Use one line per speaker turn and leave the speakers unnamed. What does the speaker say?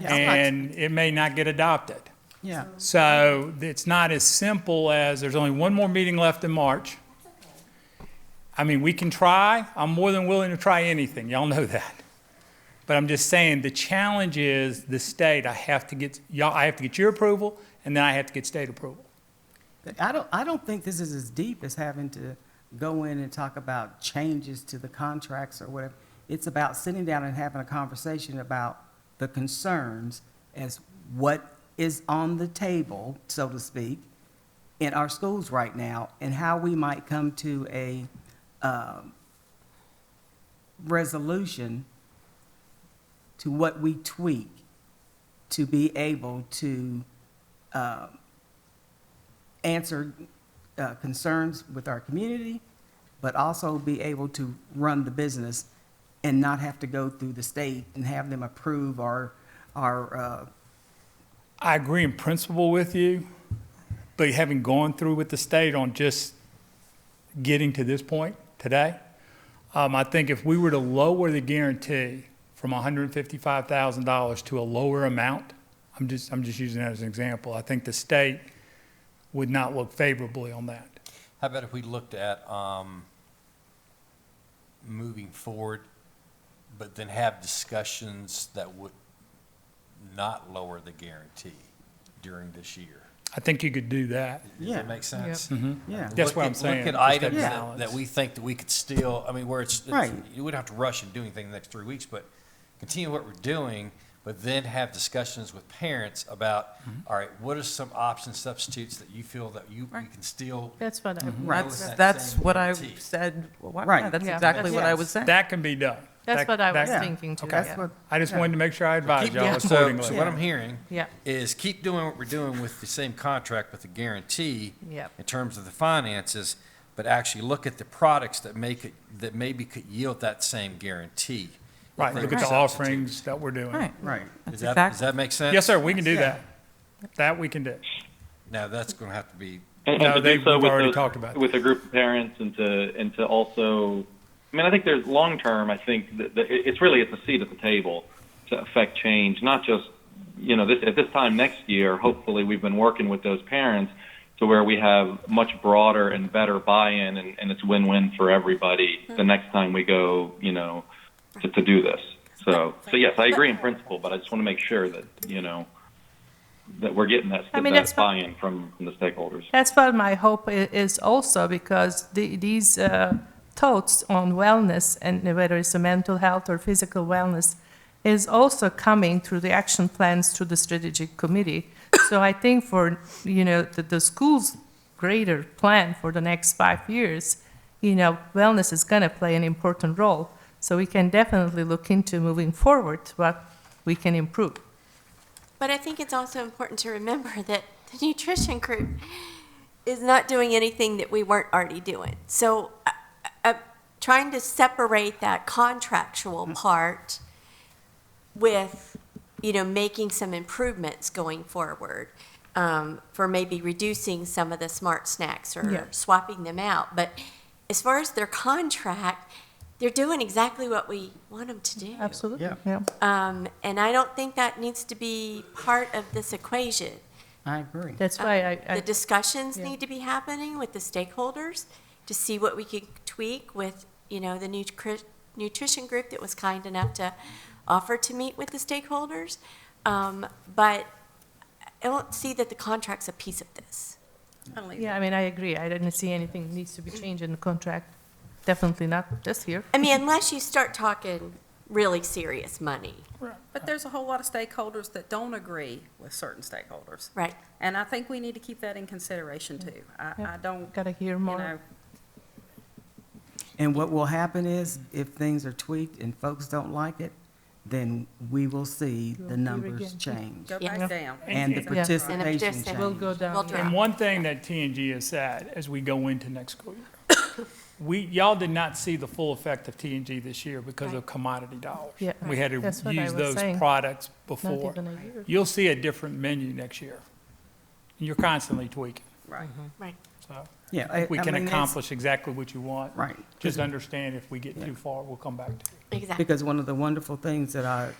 Yeah.
and it may not get adopted.
Yeah,
So it's not as simple as, there's only one more meeting left in March. I mean, we can try, I'm more than willing to try anything, y'all know that. But I'm just saying, the challenge is the state, I have to get, y'all, I have to get your approval, and then I have to get state approval.
But I don't, I don't think this is as deep as having to go in and talk about changes to the contracts or whatever. It's about sitting down and having a conversation about the concerns as what is on the table, so to speak, in our schools right now, and how we might come to a um, resolution to what we tweak to be able to uh, answer uh, concerns with our community, but also be able to run the business and not have to go through the state and have them approve our, our, uh,
I agree in principle with you, but having gone through with the state on just getting to this point today, um, I think if we were to lower the guarantee from $155,000 to a lower amount, I'm just, I'm just using that as an example, I think the state would not look favorably on that.
How about if we looked at, um, moving forward, but then have discussions that would not lower the guarantee during this year?
I think you could do that.
Does
Yeah.
that make sense?
yeah.
Mm-hmm. That's
Look
what
at-
I'm saying,
Look at
just that
items that,
balance.
that we think that we could still, I mean, where it's, it's-
Right.
you wouldn't have to rush and do anything in the next three weeks, but continue what we're doing, but then have discussions with parents about,
Mm-hmm.
all right, what are some options, substitutes that you feel that you, we
Right.
can still
That's what I,
Right.
That's,
That
that's
same
what I
guarantee.
said, well, why-
Right.
yeah, that's
Yeah.
exactly what I
Yes.
was saying.
That can be done.
that's
That-
what I was
that-
thinking too,
Okay.
That's
yeah.
what,
I just wanted to make sure I advised
Keep- yeah,
y'all
so,
accordingly.
so what I'm hearing
Yeah.
is keep doing what we're doing with the same contract with the guarantee
Yep.
in terms of the finances, but actually look at the products that make it, that maybe could yield that same guarantee.
Right, look at the
Substitute.
offerings that we're doing.
Right.
right.
That's
Does that, does
exactly,
that make sense?
Yes, sir, we can do
Yeah.
that. That we can do.
Now, that's going to have to be,
And,
No,
and to
they-
do so
we've
with
already
the,
talked about
with a group of parents and to and to also, I mean, I think there's long term. I think that, that it- it's really it's a seat at the table to affect change, not just you know this at this time next year. Hopefully, we've been working with those parents to where we have much broader and better buy-in, and, and it's win-win for everybody
Mm-hmm.
the next time we go, you know, to, to do this. So, so yes, I agree in principle, but I just want to make sure that you know that we're getting that,
I mean,
that
that's what-
buy-in from, from the stakeholders.
That's what my hope i- is also, because the- these uh, thoughts on wellness, and whether it's a mental health or physical wellness, is also coming through the action plans through the strategic committee. So I think for, you know, the, the school's greater plan for the next five years, you know, wellness is gonna play an important role. So we can definitely look into moving forward what we can improve.
But I think it's also important to remember that the nutrition group is not doing anything that we weren't already doing. So uh, uh, trying to separate that contractual part with, you know, making some improvements going forward um, for maybe reducing some of the smart snacks or
Yeah.
swapping them out. But as far as their contract, they're doing exactly what we want them to do.
Absolutely,
Yeah.
yeah.
Um, and I don't think that needs to be part of this equation. Um,
I agree.
That's
Uh,
why I,
The
I,
discussions
yeah.
need to be happening with the stakeholders to see what we could tweak with, you know, the nutri- nutrition group that was kind enough to offer to meet with the stakeholders. Um, but I don't see that the contract's a piece of this.
yeah, I mean, I agree. I didn't see anything needs to be
Mm-hmm.
changed in the contract. Definitely not this year.
I mean, unless you start talking really serious money,
But there's a whole lot of stakeholders that don't agree with certain stakeholders.
right?
And I think we need to keep that in consideration too. I,
Yeah.
I don't,
Gotta hear
you
more.
know,
And what will happen is, if things are tweaked and folks don't like it, then we will see
We'll
the
hear
numbers
again.
change
go
Yeah.
back down.
and the
And
participation
just-
change.
We'll go down.
We'll
yeah.
try.
And one thing that TNG has said as we go into next school year, we, y'all did not see the full effect of TNG this year because of commodity dollars.
Yeah,
We had to
that's what I
use
was
those
saying.
products
Not
before.
even a year.
You'll see a different menu next year. You're constantly tweaking,
Right.
Right.
so
Yeah. I-
we
I
can
mean, it's-
accomplish exactly what you want.
Right.
Just understand if we get too far, we'll come back to it.
Exactly.
Because one of the wonderful things that I